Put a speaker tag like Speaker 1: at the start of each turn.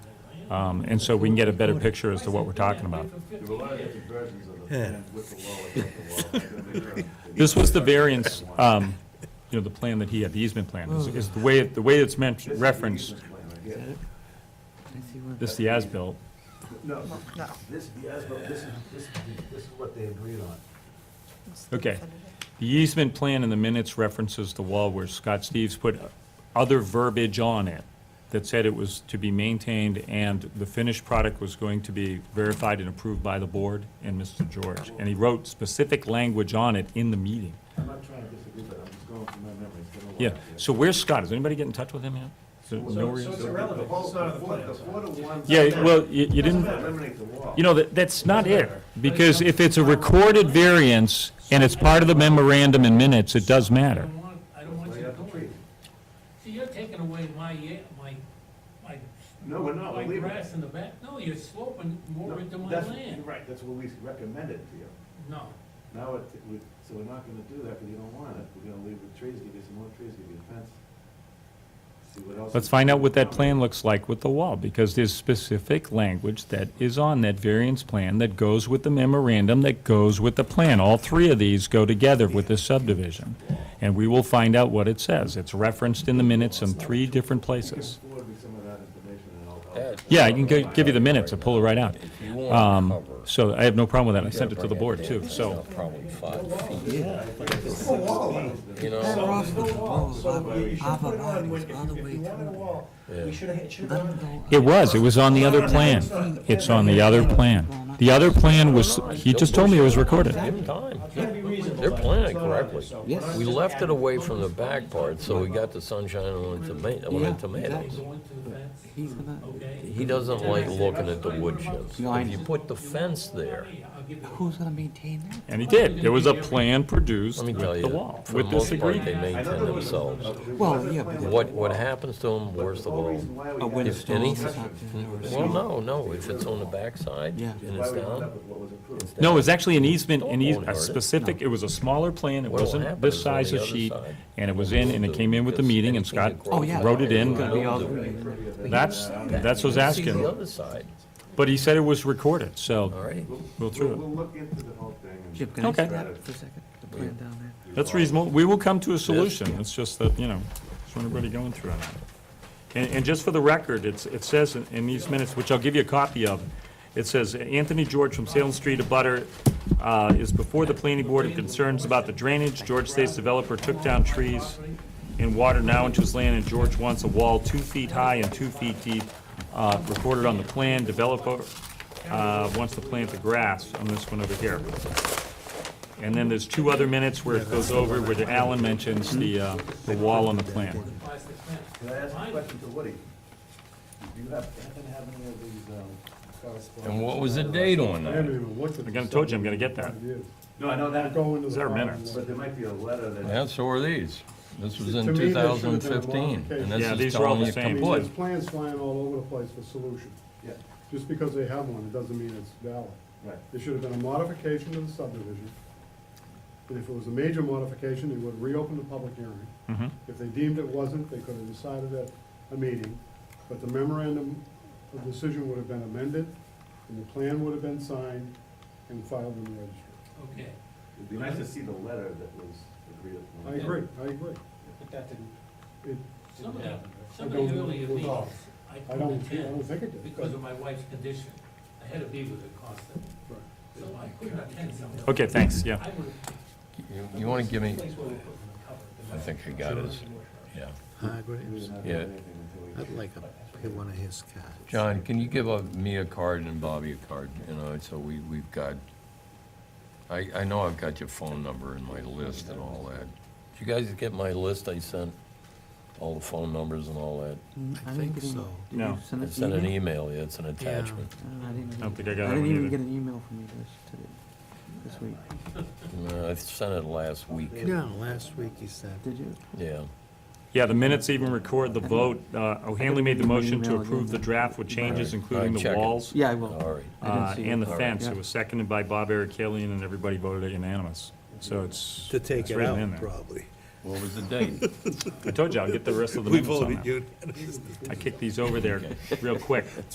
Speaker 1: Um, And so we can get a better picture as to what we're talking about.
Speaker 2: There were a lot of different versions of the, with the law and without the law.
Speaker 1: This was the variance, um, you know, the plan that he had, the easement plan, is- is the way, the way it's meant, referenced, this is the as-built.
Speaker 2: No, this, the ASBIL, this is, this, this is what they agreed on.
Speaker 1: Okay. The easement plan in the minutes references the wall where Scott Steves put other verbiage on it that said it was to be maintained and the finished product was going to be verified and approved by the board and Mr. George. And he wrote specific language on it in the meeting.
Speaker 2: I'm not trying to disagree, but I'm just going from my memory. It's been a while.
Speaker 1: Yeah, so where's Scott? Does anybody get in touch with him yet? Is there no
Speaker 2: So
Speaker 1: reason?
Speaker 2: it's irrelevant, it's not on the plan. The four to one.
Speaker 1: Yeah, well, you you didn't.
Speaker 2: Eliminate the wall.
Speaker 1: You know, that, that's not it, because if it's a recorded variance and it's part of the memorandum in minutes, it does matter.
Speaker 3: I don't want, I don't
Speaker 2: Well,
Speaker 3: want you
Speaker 2: you
Speaker 3: to
Speaker 2: have to
Speaker 3: go
Speaker 2: treat
Speaker 3: in.
Speaker 2: it.
Speaker 3: See, you're taking away my, ye- my, my.
Speaker 2: No, we're not,
Speaker 3: My
Speaker 2: we're leaving.
Speaker 3: grass in the back, no, you're sloping more into
Speaker 2: Oh, No,
Speaker 3: my
Speaker 2: that's- You're
Speaker 3: land.
Speaker 2: right, that's what we recommended to you.
Speaker 3: No,
Speaker 2: Now, it, we, so we're not gonna do that, because you don't want it, we're gonna leave the trees, give you some more trees, give you a fence. See what else.
Speaker 1: Let's find out what that plan looks like with the wall, because there's specific language that is on that variance plan that goes with the memorandum, that goes with the plan. All three of these go together with the subdivision, and we will find out what it says. It's referenced in the minutes in three different
Speaker 2: You can
Speaker 1: places.
Speaker 2: forward me some of that information, and I'll,
Speaker 4: Yeah,
Speaker 2: I'll,
Speaker 1: Yeah, I can gi- give you the minutes, I'll pull it right out.
Speaker 4: If you want
Speaker 1: Um,
Speaker 4: cover,
Speaker 1: So I have no problem with that, I sent it to
Speaker 4: bring
Speaker 1: the board, too,
Speaker 4: down.
Speaker 1: so.
Speaker 4: It's Probably five feet, you
Speaker 5: Better
Speaker 4: know?
Speaker 5: off with the balls, other bodies, other way through. Let them go.
Speaker 1: It was, it was on the other plan. It's on the other plan. The other plan was, he just told me it was recorded.
Speaker 4: Give 'em time. They're planning correctly.
Speaker 5: Yes.
Speaker 4: We left it away from the back part, so we got the sunshine on the toma- on the
Speaker 5: Yeah,
Speaker 4: tomatoes.
Speaker 5: exactly.
Speaker 3: go into the fence,
Speaker 5: He's gonna,
Speaker 3: okay?
Speaker 4: He doesn't like looking at the wood chips.
Speaker 5: No, I
Speaker 4: If you put the fence there,
Speaker 3: Hey, I'll give you.
Speaker 5: who's gonna maintain that?
Speaker 1: And he did. There was a plan produced
Speaker 4: let me
Speaker 1: with
Speaker 4: tell
Speaker 1: the
Speaker 4: you,
Speaker 1: wall,
Speaker 4: for the
Speaker 1: with this
Speaker 4: most part, they
Speaker 1: agreement.
Speaker 2: I
Speaker 4: maintain
Speaker 2: know there was.
Speaker 4: themselves.
Speaker 5: Well, yeah, but there-
Speaker 4: What, what happens to them, worst of
Speaker 2: The whole
Speaker 4: all,
Speaker 2: reason why we
Speaker 5: A
Speaker 2: had-
Speaker 5: windstorm or
Speaker 4: anything-
Speaker 5: something, or
Speaker 4: well, no, no, if it's on the backside
Speaker 5: Yeah.
Speaker 4: and
Speaker 2: Why
Speaker 4: it's
Speaker 2: we wound up
Speaker 4: down.
Speaker 2: with what was approved.
Speaker 1: No, it was actually an easement, an eas- a specific, it was a smaller plan, it
Speaker 4: What'll
Speaker 1: wasn't
Speaker 4: happen
Speaker 1: this
Speaker 4: is on
Speaker 1: size
Speaker 4: the
Speaker 1: of
Speaker 4: other
Speaker 1: sheet,
Speaker 4: side,
Speaker 1: and it was in, and it came in with the meeting, and Scott
Speaker 4: anything that
Speaker 5: Oh, yeah.
Speaker 4: grows
Speaker 1: wrote it in.
Speaker 4: on the
Speaker 5: Gonna be all
Speaker 4: ground,
Speaker 1: That's, that's what's
Speaker 4: See the
Speaker 1: asking.
Speaker 4: other side,
Speaker 1: But he said it was recorded,
Speaker 4: all
Speaker 1: so
Speaker 4: right?
Speaker 1: we'll
Speaker 2: We'll,
Speaker 1: through
Speaker 2: we'll look into the whole thing. and-
Speaker 5: Chip, can I
Speaker 1: Okay.
Speaker 5: stop for a second? The plan down there.
Speaker 1: it. That's reasonable. We will come to a solution. It's just that, you know, that's what everybody going through. And, and just for the record, it's, it says in- in these minutes, which I'll give you a copy of, it says, Anthony George from Salem Street, a butter, uh, is before the planning board of concerns about the drainage. George State's developer took down trees and water now into his land, and George wants a wall two feet high and two feet deep, uh, recorded on the plan. Developer, uh, wants to plant the grass on this one over here. And then there's two other minutes where it goes over, where the Alan mentions the, uh, the wall on the plan.
Speaker 3: Plastic fence.
Speaker 2: Can I ask a
Speaker 3: Mine-
Speaker 2: question to Woody? Do you have, happen to have any of these, um, correspondence?
Speaker 4: And what was the date on
Speaker 6: I haven't
Speaker 4: that?
Speaker 6: even looked at
Speaker 1: I'm
Speaker 6: this.
Speaker 1: gonna, told you, I'm gonna get that.
Speaker 2: No, I know that,
Speaker 6: Go into the.
Speaker 1: These are
Speaker 6: file.
Speaker 1: minutes.
Speaker 2: but there might be a letter that,
Speaker 4: Yeah, so are these. This was in
Speaker 6: To me, they should have been
Speaker 4: 2015, and
Speaker 1: Yeah,
Speaker 4: this
Speaker 1: these
Speaker 4: is
Speaker 1: are all
Speaker 4: telling
Speaker 1: the
Speaker 4: you
Speaker 1: same.
Speaker 6: I mean,
Speaker 4: complete.
Speaker 6: there's plans flying all over the place for solution.
Speaker 2: yeah,
Speaker 6: Just because they have one, it doesn't mean it's valid.
Speaker 2: right.
Speaker 6: There should have been a modification to the subdivision. And if it was a major modification, they would reopen the public hearing.
Speaker 1: Mhm.
Speaker 6: If they deemed it wasn't, they could have decided at a meeting, but the memorandum of decision would have been amended, and the plan would have been signed and filed in the registry.
Speaker 3: Okay,
Speaker 2: It'd be nice to see the letter that was agreed upon.
Speaker 6: I agree, I agree.
Speaker 2: But that didn't.
Speaker 6: It,
Speaker 3: some of that, some
Speaker 6: I
Speaker 3: of
Speaker 6: don't-
Speaker 3: the earlier meetings,
Speaker 6: well,
Speaker 3: I
Speaker 6: I
Speaker 3: couldn't
Speaker 6: don't, I don't
Speaker 3: attend
Speaker 6: think it did.
Speaker 3: because of my wife's condition. I had to be with her constantly,
Speaker 6: Right.
Speaker 3: so I couldn't attend some of them.
Speaker 1: Okay, thanks, yeah.
Speaker 3: I would,
Speaker 4: You- You want to give me,
Speaker 3: place where we put them in cover.
Speaker 4: I think I got his, yeah.
Speaker 7: High grapes.
Speaker 4: Yeah.
Speaker 7: I'd like a, get one of his cards.
Speaker 4: John, can you give uh, me a card and Bobby a card, you know, so we, we've got, I, I know I've got your phone number and my list and all that. Did you guys get my list I sent? All the phone numbers and all that?
Speaker 5: Mm,
Speaker 7: I
Speaker 5: didn't
Speaker 7: think
Speaker 5: get any-
Speaker 7: so.
Speaker 5: did
Speaker 1: No.
Speaker 5: you send
Speaker 4: I
Speaker 5: us
Speaker 4: sent an
Speaker 5: email?
Speaker 4: email, yeah, it's an attachment.
Speaker 5: No, I didn't.
Speaker 1: I don't
Speaker 5: get
Speaker 1: think
Speaker 5: it.
Speaker 1: I got
Speaker 5: I
Speaker 1: that one
Speaker 5: didn't even
Speaker 1: either.
Speaker 5: get an email from you this, today, this week.
Speaker 4: Uh, I sent it last week,
Speaker 7: No, last week he said.
Speaker 5: Did you?
Speaker 4: yeah.
Speaker 1: Yeah, the minutes even record the vote. Uh, O'Hanley made the motion to
Speaker 5: Email
Speaker 1: approve the
Speaker 5: again.
Speaker 1: draft with changes,
Speaker 4: Alright,
Speaker 1: including
Speaker 4: alright, check
Speaker 1: the
Speaker 4: it.
Speaker 1: walls
Speaker 5: Yeah, I
Speaker 4: All
Speaker 5: will.
Speaker 4: right.
Speaker 5: I didn't
Speaker 1: uh,
Speaker 5: see
Speaker 1: and the
Speaker 5: it.
Speaker 1: fence.
Speaker 5: Yeah.
Speaker 1: It was seconded by Bob Ericellian, and everybody voted it unanimous. So it's,
Speaker 7: To take
Speaker 1: it's
Speaker 7: it
Speaker 1: written in
Speaker 7: out,
Speaker 1: there.
Speaker 7: probably.
Speaker 4: What was the date?
Speaker 1: I told you, I'll get the rest of the
Speaker 7: We
Speaker 1: minutes on
Speaker 7: voted
Speaker 1: that.
Speaker 7: you.
Speaker 1: I kicked these over there real quick.